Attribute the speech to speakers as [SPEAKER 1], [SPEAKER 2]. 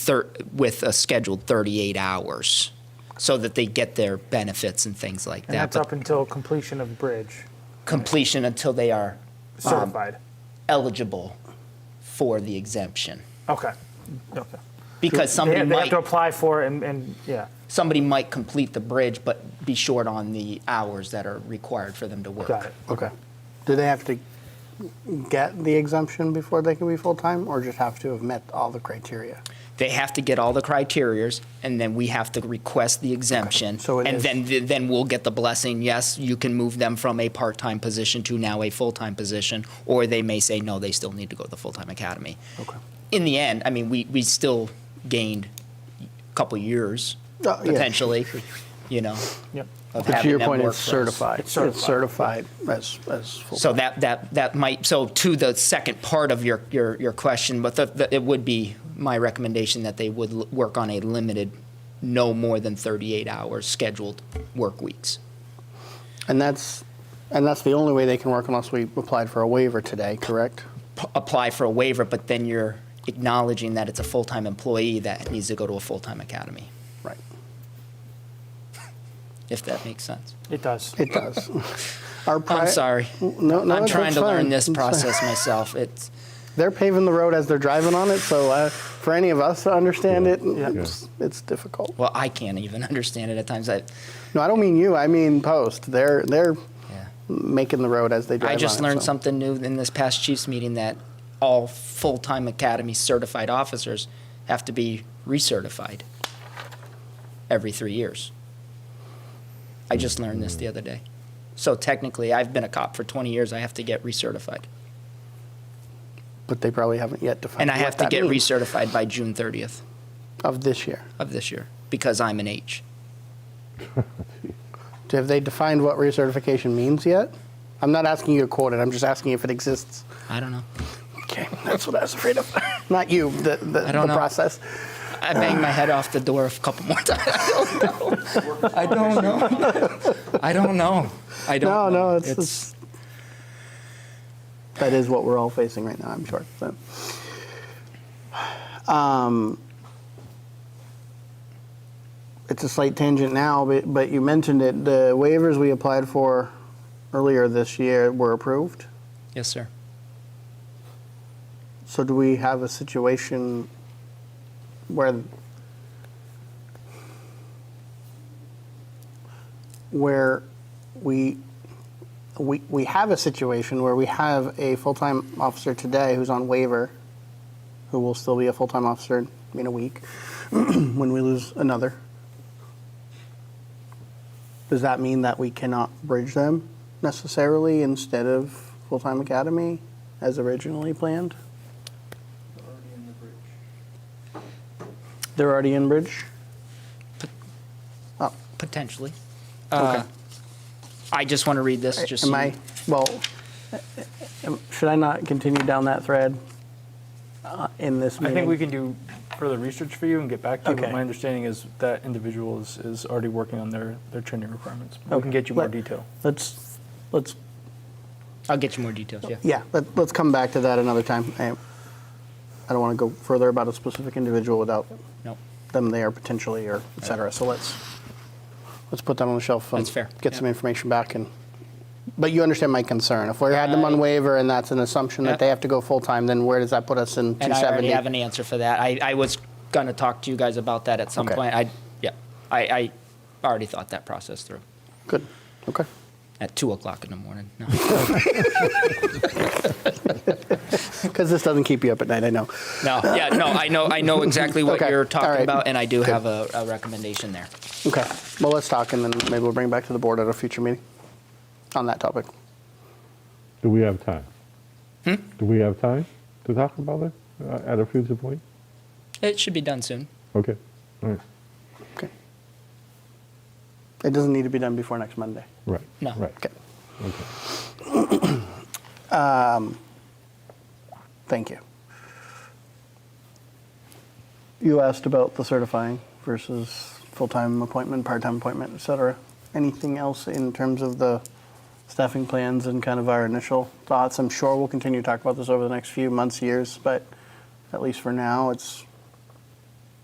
[SPEAKER 1] thir- with a scheduled 38 hours so that they get their benefits and things like
[SPEAKER 2] And
[SPEAKER 1] that.
[SPEAKER 2] that's
[SPEAKER 1] But
[SPEAKER 2] up until completion of bridge
[SPEAKER 1] completion until they are
[SPEAKER 3] Um,
[SPEAKER 1] uh,
[SPEAKER 2] certified.
[SPEAKER 1] eligible for the exemption.
[SPEAKER 2] okay. Okay.
[SPEAKER 1] Because
[SPEAKER 2] They,
[SPEAKER 1] somebody
[SPEAKER 2] have- they have
[SPEAKER 1] might
[SPEAKER 2] to apply for it and, and yeah.
[SPEAKER 1] somebody might complete the bridge but be short on the hours that are required for them to work.
[SPEAKER 2] Got it. Okay.
[SPEAKER 3] Do they have to get the exemption before they can be full-time, or just have to have met all the criteria?
[SPEAKER 1] They have to get all the criterias and then we have to request the exemption.
[SPEAKER 3] So it
[SPEAKER 1] and
[SPEAKER 3] is-
[SPEAKER 1] then then we'll get the blessing, yes, you can move them from a part-time position to now a full-time position or they may say no, they still need to go to the full-time academy.
[SPEAKER 3] Okay.
[SPEAKER 1] in the end, I mean, we, we still gained a couple years
[SPEAKER 3] Oh, yeah,
[SPEAKER 1] potentially,
[SPEAKER 3] sure, sure,
[SPEAKER 1] you know.
[SPEAKER 2] Yep.
[SPEAKER 1] Of
[SPEAKER 3] But to
[SPEAKER 1] having
[SPEAKER 3] your
[SPEAKER 1] them
[SPEAKER 3] point,
[SPEAKER 1] work
[SPEAKER 3] it's
[SPEAKER 1] for us.
[SPEAKER 3] certified.
[SPEAKER 2] It's certified.
[SPEAKER 3] It's certified as, as full.
[SPEAKER 1] So that, that, that might, so to the second part of your, your, your question, but the, the, it would be my recommendation that they would l- work on a limited, no more than 38 hours scheduled work weeks.
[SPEAKER 3] And that's, and that's the only way they can work unless we applied for a waiver today, correct?
[SPEAKER 1] P- apply for a waiver, but then you're acknowledging that it's a full-time employee that needs to go to a full-time academy,
[SPEAKER 3] Right.
[SPEAKER 1] if that makes sense.
[SPEAKER 2] It does.
[SPEAKER 3] It does. Our pri-
[SPEAKER 1] I'm sorry.
[SPEAKER 3] No, no,
[SPEAKER 1] I'm
[SPEAKER 3] that's-
[SPEAKER 1] trying
[SPEAKER 3] that's
[SPEAKER 1] to learn
[SPEAKER 3] fine.
[SPEAKER 1] this
[SPEAKER 3] That's fine.
[SPEAKER 1] process myself. It's
[SPEAKER 3] They're paving the road as they're driving on it, so uh, for any of us to understand it,
[SPEAKER 2] Yeah.
[SPEAKER 3] it's, it's difficult.
[SPEAKER 1] well, I can't even understand it at times. I,
[SPEAKER 3] No, I don't mean you. I mean post. They're they're
[SPEAKER 1] yeah.
[SPEAKER 3] making the road as they drive.
[SPEAKER 1] I just
[SPEAKER 3] on it,
[SPEAKER 1] learned
[SPEAKER 3] so.
[SPEAKER 1] something new in this past Chiefs meeting that all full-time academy certified officers have to be recertified every three years. I just learned this the other day. So technically, I've been a cop for 20 years. I have to get recertified,
[SPEAKER 3] but they probably haven't yet defined.
[SPEAKER 1] and I
[SPEAKER 3] what
[SPEAKER 1] have to
[SPEAKER 3] that
[SPEAKER 1] get
[SPEAKER 3] means
[SPEAKER 1] recertified by June 30th
[SPEAKER 3] of this year.
[SPEAKER 1] of this year because I'm an H.
[SPEAKER 3] Have they defined what recertification means yet? I'm not asking you to quote it. I'm just asking if it exists.
[SPEAKER 1] I don't know.
[SPEAKER 3] Okay, that's what I was afraid of. not you. The the,
[SPEAKER 1] I don't
[SPEAKER 3] the
[SPEAKER 1] know.
[SPEAKER 3] process.
[SPEAKER 1] I banged my head off the door a couple more times. I don't know. I don't know. I don't know.
[SPEAKER 3] No, no, it's- it's- That is what we're all facing right now. I'm sure. So. Um, it's a slight tangent now, but, but you mentioned it. The waivers we applied for earlier this year were approved.
[SPEAKER 1] yes, sir.
[SPEAKER 3] So do we have a situation where where we we, we have a situation where we have a full-time officer today who's on waiver who will still be a full-time officer in a week when we lose another does that mean that we cannot bridge them necessarily instead of full-time academy as originally planned They're already in Bridge? Oh,
[SPEAKER 1] Potentially. Uh,
[SPEAKER 3] okay.
[SPEAKER 1] I just want to read this. Just
[SPEAKER 3] Am
[SPEAKER 1] so-
[SPEAKER 3] I, well, am- should I not continue down that thread uh, in this
[SPEAKER 4] I
[SPEAKER 3] meeting?
[SPEAKER 4] think we can do further research for you and get back to you, but
[SPEAKER 3] Okay.
[SPEAKER 4] my understanding is that individual is, is already working on their, their training requirements. We
[SPEAKER 3] Okay.
[SPEAKER 4] can get you more
[SPEAKER 3] Let-
[SPEAKER 4] detail.
[SPEAKER 3] Let's, let's,
[SPEAKER 1] I'll get you more details. Yeah.
[SPEAKER 3] yeah, let- let's come back to that another time. I I don't want to go further about a specific individual without
[SPEAKER 1] No.
[SPEAKER 3] them there potentially or et cetera. So let's, let's put that on the shelf. and
[SPEAKER 1] That's fair.
[SPEAKER 3] Get some
[SPEAKER 1] Yeah.
[SPEAKER 3] information back and, but you understand my concern. If we had them
[SPEAKER 1] I-
[SPEAKER 3] on waiver and that's an assumption
[SPEAKER 1] Uh, Yeah.
[SPEAKER 3] that they have to go full-time, then where does that put us in 270?
[SPEAKER 1] And I already have an answer for that. I, I was going to talk to you guys about that at some
[SPEAKER 3] Okay.
[SPEAKER 1] point. I yeah. I, I already thought that process through
[SPEAKER 3] Good, okay.
[SPEAKER 1] at two o'clock in the morning. No.
[SPEAKER 3] Because this doesn't keep you up at night, I know.
[SPEAKER 1] no. Yeah. No. I know. I know exactly what
[SPEAKER 3] Okay.
[SPEAKER 1] you're
[SPEAKER 3] All
[SPEAKER 1] talking
[SPEAKER 3] right.
[SPEAKER 1] about, and I do
[SPEAKER 3] Good.
[SPEAKER 1] have a, a recommendation there.
[SPEAKER 3] Okay, well, let's talk and then maybe we'll bring it back to the board at a future meeting on that topic.
[SPEAKER 5] Do we have time? Do we have time to talk about it uh, at a future point?
[SPEAKER 1] It should be done soon.
[SPEAKER 5] Okay, all right,
[SPEAKER 3] Okay. It doesn't need to be done before next Monday.
[SPEAKER 5] right.
[SPEAKER 1] No.
[SPEAKER 5] Right.
[SPEAKER 3] Okay,
[SPEAKER 5] Okay.
[SPEAKER 3] Um, thank you. You asked about the certifying versus full-time appointment, part-time appointment, et cetera. Anything else in terms of the staffing plans and kind of our initial thoughts? I'm sure we'll continue to talk about this over the next few months, years, but at least for now, it's